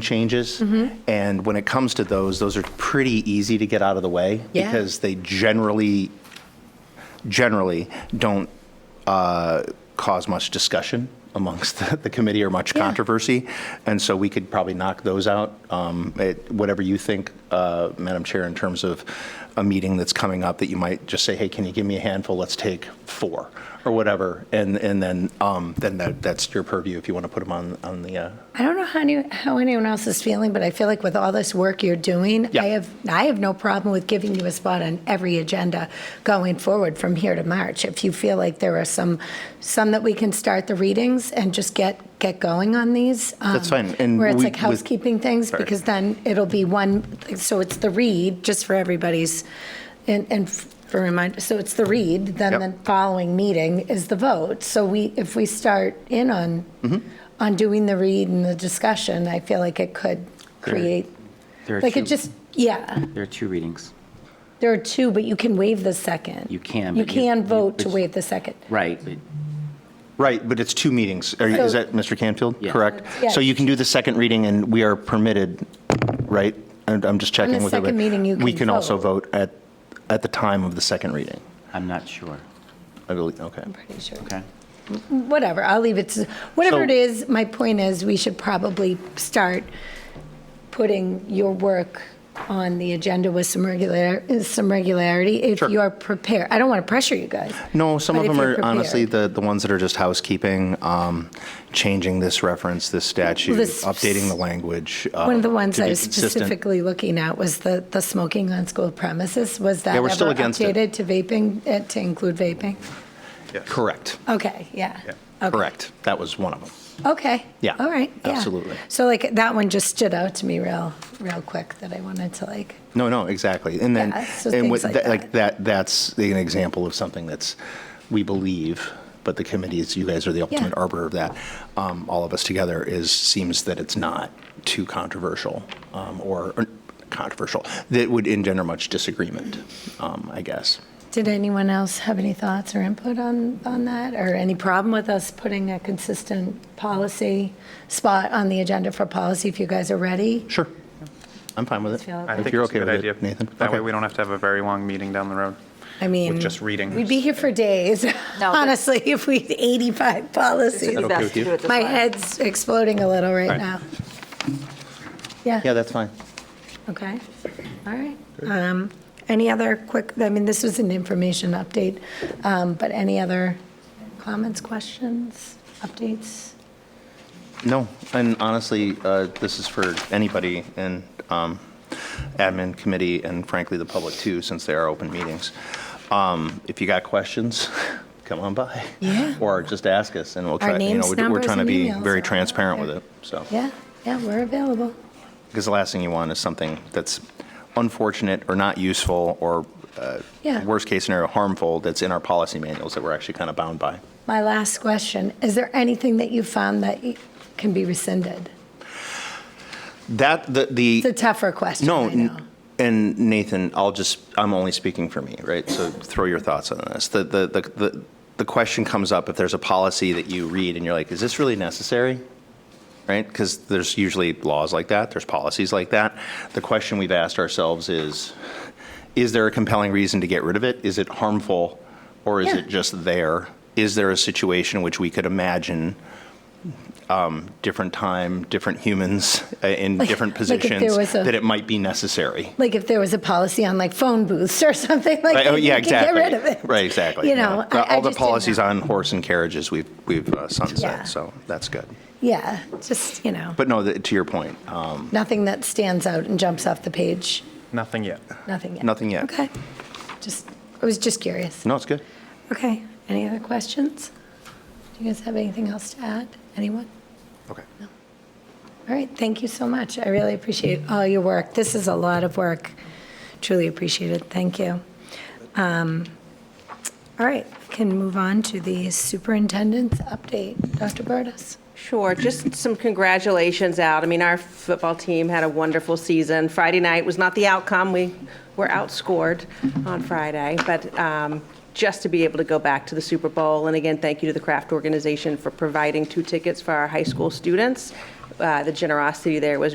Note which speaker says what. Speaker 1: changes.
Speaker 2: Mm-hmm.
Speaker 1: And when it comes to those, those are pretty easy to get out of the way
Speaker 2: Yeah.
Speaker 1: because they generally, generally don't uh, cause much discussion amongst the, the committee or much
Speaker 2: Yeah.
Speaker 1: controversy. And so we could probably knock those out. Um, it, whatever you think, uh, Madam Chair, in terms of a meeting that's coming up that you might just say, hey, can you give me a handful? Let's take four or whatever. And, and then, um, then that, that's your purview if you want to put them on, on the, uh,
Speaker 2: I don't know how, any, how anyone else is feeling, but I feel like with all this work you're doing,
Speaker 1: Yeah.
Speaker 2: I have I have no problem with giving you a spot on every agenda going forward from here to March. If you feel like there are some some that we can start the readings and just get get going on these, um,
Speaker 1: That's fine, and
Speaker 2: where it's
Speaker 1: we-
Speaker 2: like
Speaker 1: with-
Speaker 2: housekeeping things,
Speaker 1: Sorry.
Speaker 2: because then it'll be one. So it's the read just for everybody's, and and. For reminder, so it's the read. Then
Speaker 1: Yep.
Speaker 2: the following meeting is the vote. So we, if we start in on
Speaker 3: Mm-hmm.
Speaker 2: on doing the read and the discussion, I feel like it could create,
Speaker 3: There are
Speaker 2: like
Speaker 3: two,
Speaker 2: it just, yeah,
Speaker 3: There are two readings.
Speaker 2: there are two, but you can waive the second.
Speaker 3: You can,
Speaker 2: You
Speaker 3: but you-
Speaker 2: can
Speaker 3: you-
Speaker 2: vote to
Speaker 3: but-
Speaker 2: waive the second.
Speaker 3: Right, but
Speaker 1: Right, but it's two meetings. Are you- Is
Speaker 2: So-
Speaker 1: that Mr. Canfield?
Speaker 3: Yeah.
Speaker 1: Correct?
Speaker 2: Yeah.
Speaker 1: So you can do the second reading, and we are permitted, right? And I'm just checking
Speaker 2: the
Speaker 1: with everybody.
Speaker 2: second meeting, you
Speaker 1: We
Speaker 2: can
Speaker 1: can also
Speaker 2: vote.
Speaker 1: vote at, at the time of the second reading,
Speaker 3: I'm not sure.
Speaker 1: I believe, okay.
Speaker 2: I'm pretty sure.
Speaker 3: Okay.
Speaker 2: Whatever, I'll leave it to, whatever
Speaker 1: So-
Speaker 2: it is, my point is, we should probably start putting your work on the agenda with some regular, some regularity, if
Speaker 1: Sure.
Speaker 2: you're prepared. I don't want to pressure you guys.
Speaker 1: No, some
Speaker 2: But
Speaker 1: of
Speaker 2: if
Speaker 1: them
Speaker 2: you're
Speaker 1: are honestly
Speaker 2: prepared.
Speaker 1: the, the ones that are just housekeeping, um, changing this reference, this statute,
Speaker 2: this-
Speaker 1: updating the language.
Speaker 2: One
Speaker 1: um,
Speaker 2: of the ones
Speaker 1: to
Speaker 2: I
Speaker 1: be
Speaker 2: was
Speaker 1: consistent.
Speaker 2: specifically looking at was the, the smoking on school premises. Was that
Speaker 1: Yeah, we're still
Speaker 2: ever
Speaker 1: against it.
Speaker 2: updated to vaping, eh, to include vaping?
Speaker 1: Correct.
Speaker 2: Okay, yeah. Okay.
Speaker 1: Correct. That was one of them.
Speaker 2: Okay.
Speaker 1: Yeah,
Speaker 2: All right, yeah.
Speaker 1: absolutely.
Speaker 2: So like, that one just stood out to me real, real quick that I wanted to like,
Speaker 1: No, no, exactly. And then,
Speaker 2: Yeah, so
Speaker 1: and with,
Speaker 2: things like
Speaker 1: that-
Speaker 2: that.
Speaker 1: like, that, that's an example of something that's, we believe, but the committee is, you guys are the ultimate
Speaker 2: Yeah.
Speaker 1: arbiter of that, um, all of us together, is, seems that it's not too controversial, um, or or controversial, that would engender much disagreement, um, I guess.
Speaker 2: did anyone else have any thoughts or input on, on that? Or any problem with us putting a consistent policy spot on the agenda for policy if you guys are ready?
Speaker 1: Sure. I'm fine with it.
Speaker 2: feel okay.
Speaker 4: I
Speaker 2: If
Speaker 4: think
Speaker 1: you're
Speaker 4: it's a
Speaker 1: okay
Speaker 4: good
Speaker 1: with
Speaker 4: idea.
Speaker 1: it, Nathan.
Speaker 4: That way,
Speaker 1: Okay.
Speaker 4: we don't have to have a very long meeting down the road.
Speaker 2: I mean.
Speaker 4: just reading.
Speaker 2: We'd be here for days,
Speaker 5: No, but-
Speaker 2: honestly, if we had 85 policies.
Speaker 5: It's best to do it this
Speaker 2: My
Speaker 5: way.
Speaker 2: head's exploding a little right now.
Speaker 1: Yeah,
Speaker 2: Yeah,
Speaker 1: that's fine.
Speaker 2: okay, all right. Um, Any other quick, I mean, this was an information update, um, but any other comments, questions, updates?
Speaker 1: No, and honestly, uh, this is for anybody in um, admin committee and frankly, the public too, since they are open meetings. Um, If you got questions, come on by.
Speaker 2: Yeah.
Speaker 1: Or just ask us and we'll try. you know,
Speaker 2: names,
Speaker 1: we're-
Speaker 2: numbers, and
Speaker 1: We're trying to be
Speaker 2: emails are
Speaker 1: very
Speaker 2: all
Speaker 1: transparent
Speaker 2: out
Speaker 1: with
Speaker 2: there.
Speaker 1: it, so.
Speaker 2: Yeah, yeah, we're available.
Speaker 1: Because the last thing you want is something that's unfortunate or not useful or uh,
Speaker 2: Yeah.
Speaker 1: worst case scenario, harmful, that's in our policy manuals that we're actually kind of bound by.
Speaker 2: My last question, is there anything that you found that y- can be rescinded?
Speaker 1: That, the, the.
Speaker 2: It's a tougher question,
Speaker 1: No,
Speaker 2: I know.
Speaker 1: n- and Nathan, I'll just, I'm only speaking for me, right? So throw your thoughts on this. The, the, the, the, the question comes up if there's a policy that you read and you're like, is this really necessary? Right? Because there's usually laws like that, there's policies like that. The question we've asked ourselves is, is there a compelling reason to get rid of it? Is it harmful or is
Speaker 2: Yeah.
Speaker 1: it just there? Is there a situation in which we could imagine um, different time, different humans uh, in different
Speaker 2: like if there
Speaker 1: positions
Speaker 2: was a-
Speaker 1: that it might be necessary?
Speaker 2: Like if there was a policy on like phone booths or something like
Speaker 1: Right,
Speaker 2: that.
Speaker 1: oh, yeah,
Speaker 2: you could get
Speaker 1: exactly.
Speaker 2: rid of it.
Speaker 1: Right, exactly.
Speaker 2: You
Speaker 1: yeah.
Speaker 2: know, I-
Speaker 1: Uh,
Speaker 2: I
Speaker 1: all the
Speaker 2: just didn't
Speaker 1: policies
Speaker 2: know.
Speaker 1: on horse and carriages we've we've uh, sunset,
Speaker 2: Yeah.
Speaker 1: so that's good.
Speaker 2: Yeah, just, you know,
Speaker 1: But no, th to your point, um,
Speaker 2: nothing that stands out and jumps off the page,
Speaker 4: Nothing yet.
Speaker 2: nothing yet.
Speaker 1: Nothing yet.
Speaker 2: Okay, just, I was just curious.
Speaker 1: no, it's good.
Speaker 2: Okay, any other questions? Do you guys have anything else to add? Anyone?
Speaker 1: Okay.
Speaker 2: All right, thank you so much. I really appreciate all your work. This is a lot of work. Truly appreciate it. Thank you. Um, All right, can move on to the superintendent's update. Dr. Burtis?
Speaker 5: Sure, just some congratulations out. I mean, our football team had a wonderful season. Friday night was not the outcome. We were outscored on Friday, but um, just to be able to go back to the Super Bowl. And again, thank you to the Kraft Organization for providing two tickets for our high school students. Uh, The generosity there was